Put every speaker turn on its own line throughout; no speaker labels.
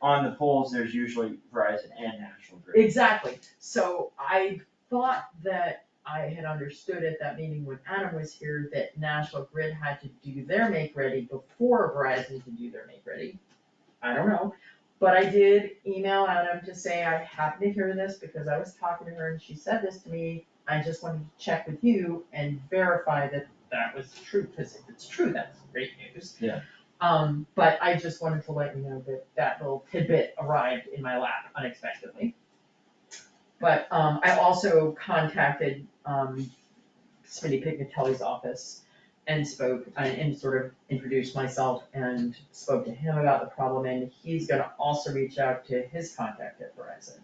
on the poles, there's usually Verizon and National Grid.
Exactly, so I thought that I had understood at that meeting when Adam was here that National Grid had to do their make ready before Verizon could do their make ready. I don't know, but I did email Adam to say I happened to hear this because I was talking to her and she said this to me. I just wanted to check with you and verify that that was true, because if it's true, that's great news.
Yeah.
Um, but I just wanted to let you know that that little tidbit arrived in my lap unexpectedly. But um I also contacted um Smitty Pignatelli's office and spoke and and sort of introduced myself and spoke to him about the problem and he's gonna also reach out to his contact at Verizon.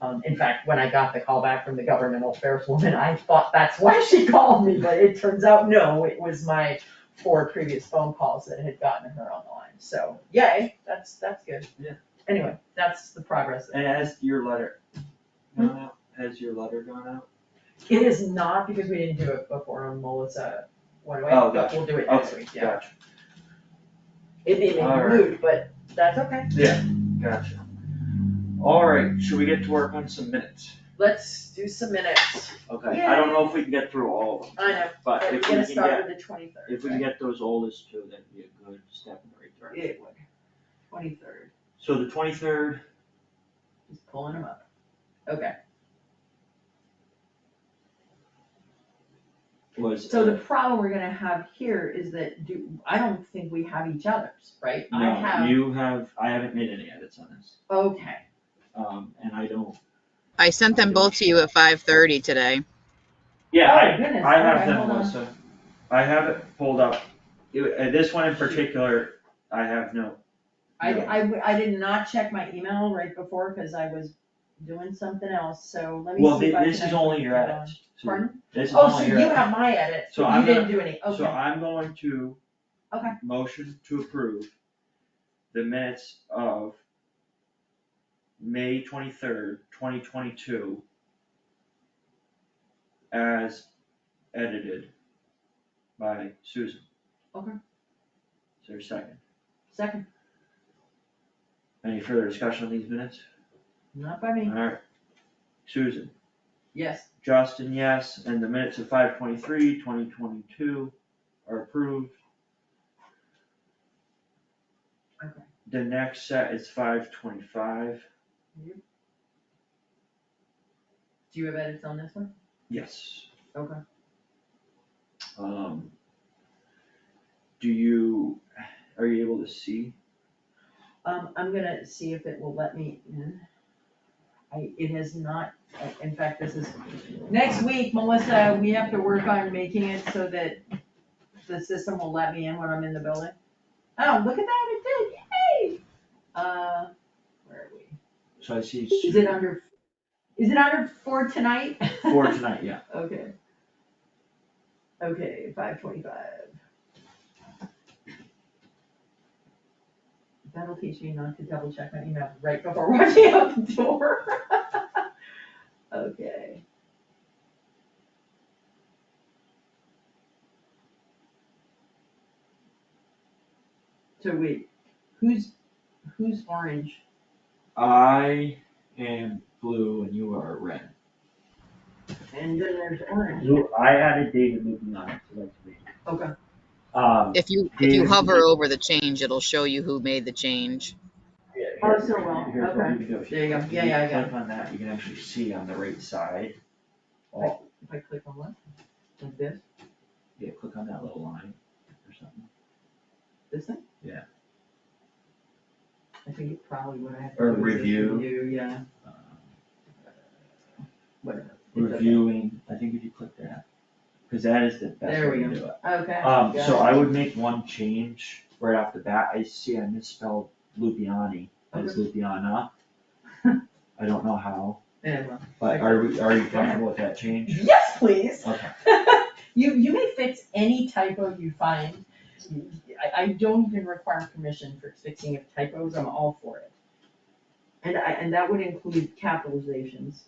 Um in fact, when I got the call back from the governmental affairs woman, I thought that's why she called me, but it turns out no, it was my four previous phone calls that had gotten her on the line, so yay, that's that's good.
Yeah.
Anyway, that's the progress
And has your letter
Hmm?
gone out? Has your letter gone out?
It is not because we didn't do it before on Melissa one way,
Oh,
but
gotcha.
we'll do it next week, yeah.
Gotcha,
It'd be a
Alright.
rude, but that's okay.
gotcha. All right, should we get to work on some minutes?
Let's do some minutes.
Okay, I don't know if we can get through all of them,
I know,
but
but we're
if we
gonna
can get,
start with the twenty third,
if we can get those oldest two, that'd be a good step in the right direction.
It would. Twenty third,
So the twenty-third,
just pulling them up. Okay,
was. uh,
so the problem we're gonna have here is that do, I don't think we have each other's, right? I
No,
have,
you have, I haven't made any edits on this,
okay,
um, and I don't,
I sent them both to you at five thirty today.
yeah, I,
Oh, goodness.
I have
Okay,
them,
hold on.
Melissa. I have it pulled up. You- uh, This one in particular, I have no.
I,
no.
I, w- I did not check my email right before, cause I was doing something else, so let me
Well,
see
thi-
if I can.
this is
actually
only your
put it on.
edits. So
Pardon?
This is
Oh, so
only
you
your edits.
have my edit,
So
you
I'm
didn't do any,
So
okay,
I'm going to.
Okay.
Motion to approve the minutes of May twenty-third, twenty twenty-two as edited by Susan.
Okay.
Is there a second?
second,
Any further discussion on these minutes?
not by me,
Alright. Susan,
yes,
Justin, yes, and the minutes of 523-2022 are approved.
Okay.
The next set is five twenty-five,
do you have edits on this one?
yes.
Okay.
Um. Do you, are you able to see?
Um, I'm gonna see if it will let me in. I, it has not, I- in fact, this is, next week, Melissa, we have to work on making it so that the system will let me in when I'm in the building. Oh, look at that, it did, yay! Uh, where are we?
So I see.
Is it under, is it under for tonight?
For tonight, yeah.
Okay. Okay, five twenty-five. That'll teach me not to double check my email right before walking out the door. Okay. So wait, who's, who's orange?
I am blue and you are red.
And then there's orange.
You, I added David Lucan on it, so that's me.
Okay,
Um,
If you if you
Yeah.
hover over the change, it'll show you who made the change.
Oh, so well,
Here's what you can do. If
There you go.
click-
Yeah, yeah, I got it.
Click on that, you can actually see on the right side. Oh,
if I click on what? Like this,
yeah, click on that little line or something,
this thing?
Yeah.
I think it probably what I have. to
Or
do is just
review.
Review, yeah,
Um,
whatever. It doesn't-
reviewing, I think if you click that, cause that is the best
There
way
we
to
go.
do it.
Okay.
Um,
got
so
it.
I would make one change right off the bat, I see I misspelled Lupiani as Lupiana. I don't know how,
Yeah, well.
but are we, are you comfortable with that change?
Yes, please.
Okay.
You, you may fix any typo you find. I, I don't even require permission for fixing of typos, I'm all for it. And I, and that would include capitalizations.